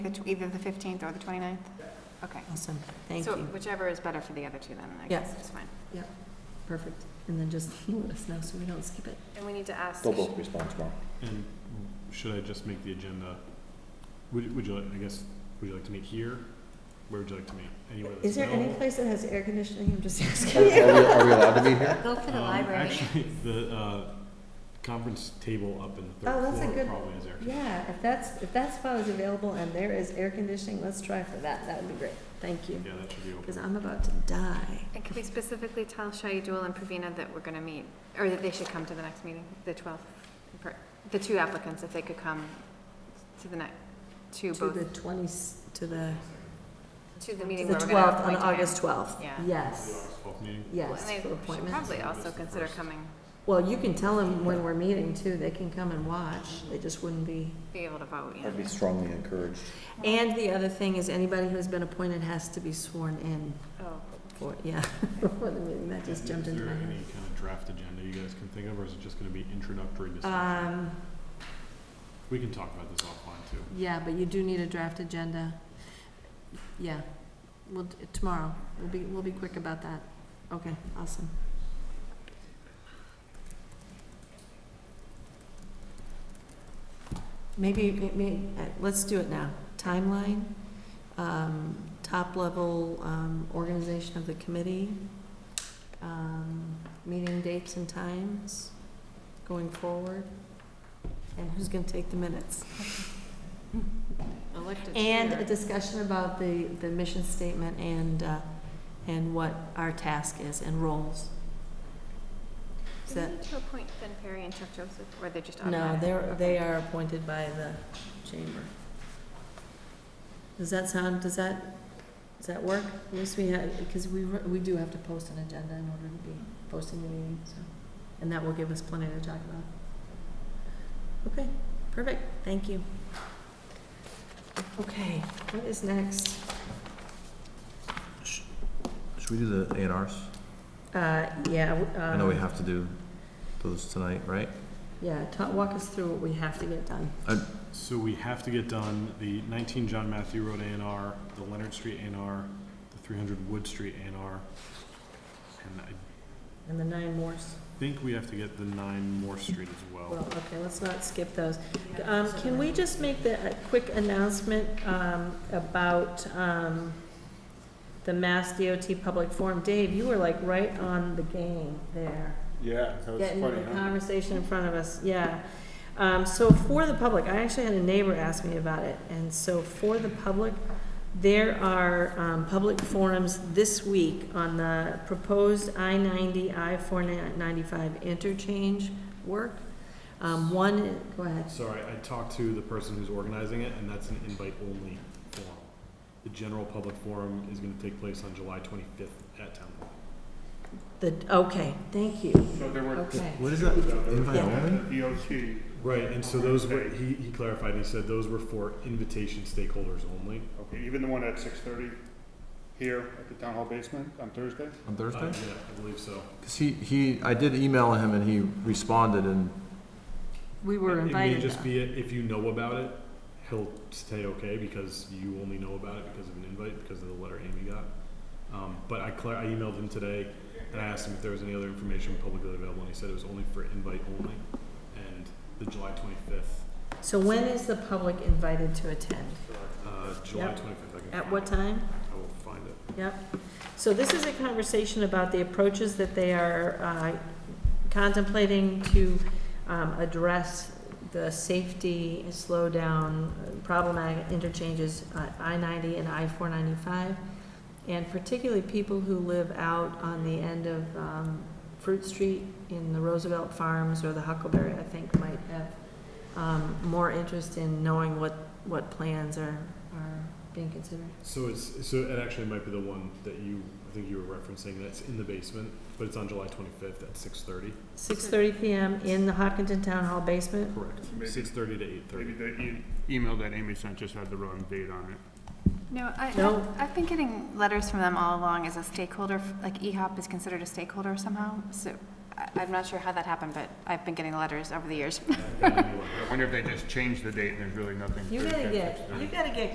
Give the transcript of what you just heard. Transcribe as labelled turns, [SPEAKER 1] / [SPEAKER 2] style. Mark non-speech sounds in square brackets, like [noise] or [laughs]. [SPEAKER 1] The tw- Either the 15th or the 29th? Okay.
[SPEAKER 2] Awesome, thank
[SPEAKER 1] So
[SPEAKER 2] you.
[SPEAKER 1] whichever is better for the other two then, I
[SPEAKER 2] Yeah.
[SPEAKER 1] guess, it's fine.
[SPEAKER 2] Perfect. And then just [laughs] let us know so we don't skip it.
[SPEAKER 1] And we need to ask,
[SPEAKER 3] They'll both respond tomorrow.
[SPEAKER 4] And should I just make the agenda, would, would you, like? I guess, would you like to meet here? Where would you like to meet? Anywhere that's
[SPEAKER 2] Is there any
[SPEAKER 4] available?
[SPEAKER 2] place that has air conditioning? I'm just [laughs]
[SPEAKER 3] [laughs] Are
[SPEAKER 2] asking.
[SPEAKER 3] we, are
[SPEAKER 2] [laughs]
[SPEAKER 3] we allowed to be here?
[SPEAKER 1] go for the
[SPEAKER 4] Um,
[SPEAKER 1] library.
[SPEAKER 4] Actually, the, uh, conference table up in the
[SPEAKER 2] Oh,
[SPEAKER 4] third
[SPEAKER 2] that's a
[SPEAKER 4] floor
[SPEAKER 2] good-
[SPEAKER 4] probably is there.
[SPEAKER 2] Yeah, if that's, if that spot is available and there is air conditioning, let's try for that. That would be great. Thank you.
[SPEAKER 4] Yeah, that should be open.
[SPEAKER 2] Because I'm about to die.
[SPEAKER 1] And can we specifically tell Shaiduel and Pravina that we're going to meet, or that they should come to the next meeting, the 12th? per- The two applicants, if they could come to the next, to
[SPEAKER 2] To
[SPEAKER 1] both,
[SPEAKER 2] the 20s, to the,
[SPEAKER 1] to the
[SPEAKER 2] to
[SPEAKER 1] meeting
[SPEAKER 2] the
[SPEAKER 1] where we're going to
[SPEAKER 2] 12th,
[SPEAKER 1] appoint a
[SPEAKER 2] on
[SPEAKER 1] man.
[SPEAKER 2] August 12th.
[SPEAKER 1] Yeah.
[SPEAKER 2] Yes,
[SPEAKER 4] Twelfth meeting?
[SPEAKER 1] Well,
[SPEAKER 2] yes,
[SPEAKER 1] And
[SPEAKER 2] for
[SPEAKER 1] they should
[SPEAKER 2] appointments.
[SPEAKER 1] probably also consider coming,
[SPEAKER 2] Well, you can tell them when we're meeting too. They can come and watch. They just wouldn't be.
[SPEAKER 1] be able to vote, yeah.
[SPEAKER 3] I'd be strongly encouraged.
[SPEAKER 2] And the other thing is anybody who's been appointed has to be sworn in
[SPEAKER 1] Oh,
[SPEAKER 2] for, yeah. [laughs] For the meeting. That just jumped into my
[SPEAKER 4] Is there any
[SPEAKER 2] head.
[SPEAKER 4] kind of draft agenda you guys can think of, or is it just gonna be introductory discussion?
[SPEAKER 2] Um,
[SPEAKER 4] We can talk about this offline too.
[SPEAKER 2] Yeah, but you do need a draft agenda. Yeah, we'll, d- tomorrow, we'll be, we'll be quick about that. Okay, awesome. Maybe, maybe, let's do it now. Timeline, um, top level, um, organization of the committee, um, meeting dates and times going forward, and who's gonna take the minutes?
[SPEAKER 1] elected.
[SPEAKER 2] And
[SPEAKER 1] chair.
[SPEAKER 2] a discussion about the, the mission statement and, uh, and what our task is and roles.
[SPEAKER 1] Do we
[SPEAKER 2] that-
[SPEAKER 1] need to appoint Ben Perry and Chuck Joseph, or they're just
[SPEAKER 2] No,
[SPEAKER 1] automatic?
[SPEAKER 2] they're,
[SPEAKER 1] Okay.
[SPEAKER 2] they are appointed by the chamber. Does that sound, does that, does that work? At least we had, because we, re- we do have to post an agenda in order to be posting the meeting, so, and that will give us plenty to talk about. Okay, perfect, thank you. Okay, what is next?
[SPEAKER 3] Should we do the A and Rs?
[SPEAKER 2] Uh, yeah. w-
[SPEAKER 3] I know we
[SPEAKER 2] um,
[SPEAKER 3] have to do those tonight, right?
[SPEAKER 2] Yeah, ta- walk us through what we have to get done.
[SPEAKER 4] So we have to get done the nineteen John Matthew Road A and R, the Leonard Street A and R, the three hundred Wood Street A and R. And I
[SPEAKER 2] And the nine mores.
[SPEAKER 4] think we have to get the nine Moore Street as
[SPEAKER 3] Oh.
[SPEAKER 4] well.
[SPEAKER 2] Well, okay, let's not skip those. Um, can we just make the, a quick announcement, um, about, um, the Mass DOT Public Forum? Dave, you were like right on the game there.
[SPEAKER 4] Yeah, that
[SPEAKER 2] Getting the conversation in front of us, yeah. Um, so for the public, I actually had a neighbor ask me about it, and so for the public, there are, um, public forums this week on the proposed I ninety, I four ninety-five interchange work. Um, one, go ahead.
[SPEAKER 4] Sorry, I talked to the person who's organizing it, and that's an invite-only forum. The general public forum is gonna take place on July twenty-fifth at Town Hall.
[SPEAKER 2] The, okay, thank you,
[SPEAKER 5] So there were
[SPEAKER 2] okay.
[SPEAKER 3] What is that? Invite
[SPEAKER 2] Yeah.
[SPEAKER 3] only?
[SPEAKER 5] DOT,
[SPEAKER 4] Right, and so those were, he, he clarified, he said those were for invitation stakeholders only.
[SPEAKER 5] okay, even the one at six thirty here at the town hall basement on Thursday.
[SPEAKER 3] On
[SPEAKER 4] Uh, Yeah, I believe so.
[SPEAKER 3] Because he, he, I did email him and he responded and
[SPEAKER 2] We were
[SPEAKER 4] It may
[SPEAKER 2] invited
[SPEAKER 4] just be, if you know about it, he'll stay okay, because you only know about it because of an invite, because of the letter Amy got. Um, but I clar- I emailed him today, and I asked him if there was any other information publicly available, and he said it was only for invite only, and the July twenty-fifth,
[SPEAKER 2] So when is the public invited to attend?
[SPEAKER 4] uh, July
[SPEAKER 2] Yep.
[SPEAKER 4] twenty-fifth, I can.
[SPEAKER 2] At
[SPEAKER 4] find
[SPEAKER 2] what
[SPEAKER 4] it.
[SPEAKER 2] time?
[SPEAKER 4] I will find it.
[SPEAKER 2] Yep. So this is a conversation about the approaches that they are uh, contemplating to um, address the safety slowdown uh, problematic interchanges, uh, I-90 and I-495, and particularly people who live out on the end of um, Fruit Street in the Roosevelt Farms or the Huckleberry, I think, might have um, more interest in knowing what, what plans are, are being considered.
[SPEAKER 4] So it's, so it actually might be the one that you, I think you were referencing, that's in the basement, but it's on July twenty-fifth at six thirty.
[SPEAKER 2] Six thirty PM in the Hopkinton Town Hall basement.
[SPEAKER 4] Correct. Six thirty to eight thirty.
[SPEAKER 5] [laughs] Maybe the e- email that Amy sent just had the wrong date on it.
[SPEAKER 1] No, I,
[SPEAKER 2] No.
[SPEAKER 1] I've- I've been getting letters from them all along as a stakeholder, f- like E EHOP is considered a stakeholder somehow, so I- I'm not sure how that happened, but I've been getting letters over the years.
[SPEAKER 5] I wonder if they just changed the date and there's really nothing.
[SPEAKER 2] You
[SPEAKER 5] Thursday
[SPEAKER 2] gotta
[SPEAKER 5] at
[SPEAKER 2] get,
[SPEAKER 5] 6:30.
[SPEAKER 2] you gotta get